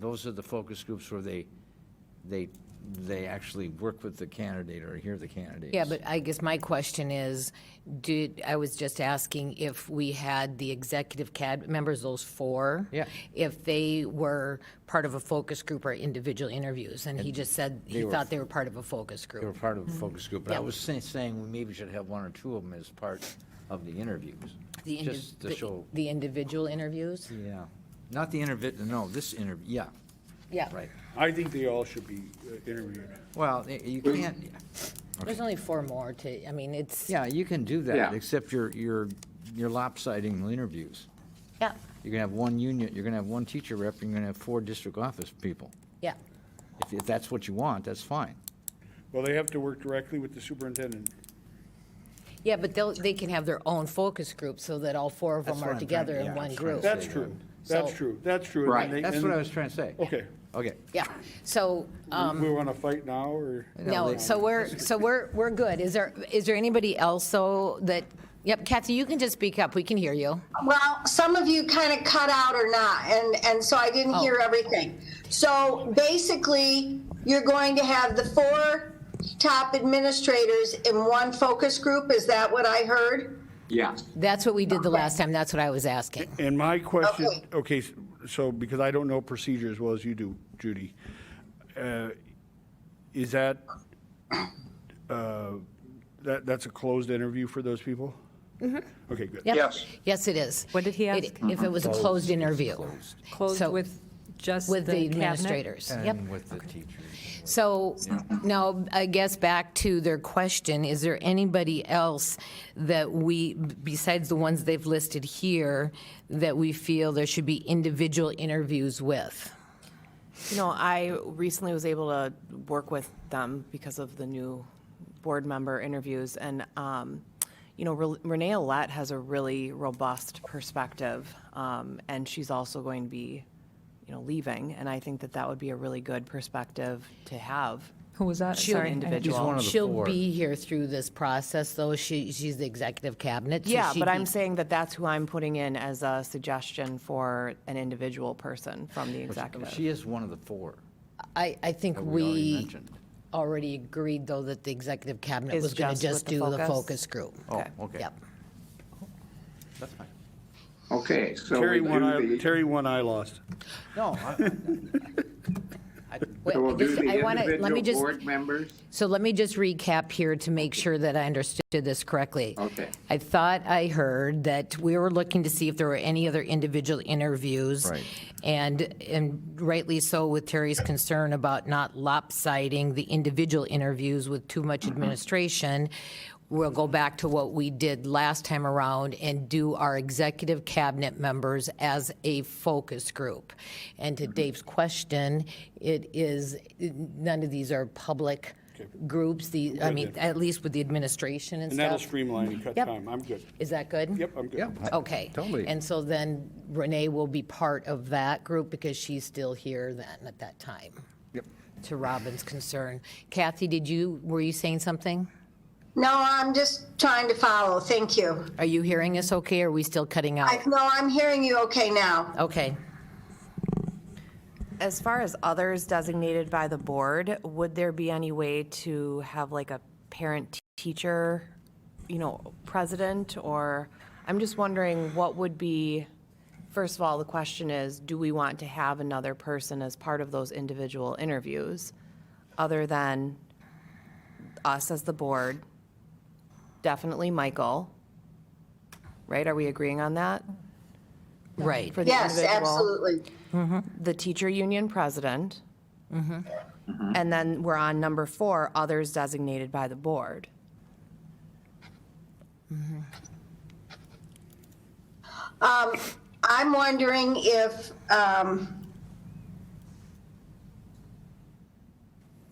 those are the focus groups where they, they, they actually work with the candidate or hear the candidates. Yeah, but I guess my question is, did, I was just asking if we had the executive cab members, those four? Yeah. If they were part of a focus group or individual interviews, and he just said he were- thought they were part of a focus They were group. part of a focus group, but I Mm-hmm. Yeah. was saying, saying we maybe should have one or two of them as part of the interviews. The indi- Just to the- show, The individual interviews? yeah, not the interview, no, this interview, yeah, Yeah. right. I think they all should be uh, interviewed. Well, y- you can't, There's only four more to, I mean, it's, yeah, you can do Yeah. that, except you're, you're, you're lopsiding the interviews. yeah, You're gonna have one union, you're gonna have one teacher rep, and you're gonna have four district office people. yeah. If, if that's what you want, that's fine. Well, they have to work directly with the superintendent. Yeah, but they'll, they can have their own focus group so that all four of That's them what are I'm trying- together yeah, in I'm one trying to group. say. That's true, that's So- true, that's true. And Right. they- That's and- what I was trying to say. Okay. Okay. Yeah, so, um, We want to fight now, or? No, so we're, so we're, we're good. Is there, is there anybody else, though, that, yep, Kathy, you can just speak up, we can hear you. Well, some of you kind of cut out or not, and, and so I didn't hear everything. So basically, you're going to have the four top administrators in one focus group, is that what I heard? Yeah. That's what we did the last time, that's what I was asking. And my question, Okay. okay, s- so because I don't know procedure as well as you do, Judy, uh, is that, uh, that, that's a closed interview for those people? Mm-hmm. Okay, good. Yep. Yes. Yes, it is. What did he It- ask? If it was a closed interview. Closed So- with just the With the cabinet? administrators, yep. And with the teachers. So, now, I guess back to their question, is there anybody else that we, besides the ones they've listed here, that we feel there should be individual interviews with? You know, I recently was able to work with them because of the new board member interviews, and, um, you know, Re- Renee Alette has a really robust perspective, um, and she's also going to be, you know, leaving, and I think that that would be a really good perspective to have. Who was that? She'll Sorry. I- individual. She's one of the She'll four. be here through this process, though. She, she's the executive cabinet. so Yeah, she'd but be- I'm saying that that's who I'm putting in as a suggestion for an individual person from the executive. She is one of the four I, I think that we already we mentioned. already agreed, though, that the executive cabinet Is was going to just with just the do the focus? focus group. Oh, Okay. okay. Yep. That's fine. Okay, so we Terry, one do eye, the, Terry, one eye lost. No, I- Wait, so we'll do just- the I wanna- let me individual just- board members? So let me just recap here to make sure that I understood this correctly. Okay. I thought I heard that we were looking to see if there were any other individual interviews. Right. And, and rightly so with Terry's concern about not lopsiding the individual interviews with too much administration. We'll go back to what we did last time around and do our executive cabinet members as a focus group. And to Dave's question, it is, none of these are public groups, the, I mean, Good. at least with the administration and And that'll stuff. streamline and cut Yep. time. I'm good. Is that good? Yep, I'm good. Yeah. I- Okay. Totally. And so then Renee will be part of that group because she's still here then at that time. Yep. To Robin's concern. Kathy, did you, were you saying something? No, I'm just trying to follow, thank you. Are you hearing us okay? Are we still cutting I, out? no, I'm hearing you okay now. Okay. As far as others designated by the board, would there be any way to have like a parent-teacher, you know, president? Or, I'm just wondering what would be, first of all, the question is, do we want to have another person as part of those individual interviews? Other than us as the board, definitely Michael, right? Are we agreeing on that? Right. For the Yes, individual? absolutely. the teacher union president. And then we're on number four, others designated by the board. I'm wondering if, um,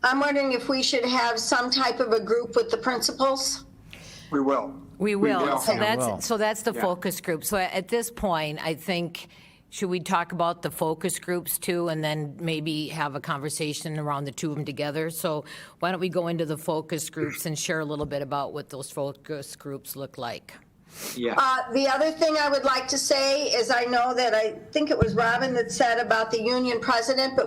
I'm wondering if we should have some type of a group with the principals? We will. We will. So Yeah. will. that's, so that's the Yeah. focus group. So at this point, I think, should we talk about the focus groups too? And then maybe have a conversation around the two of them together? So why don't we go into the focus groups and share a little bit about what those focus groups look like? Yeah. Uh, The other thing I would like to say is I know that I think it was Robin that said about the union president, but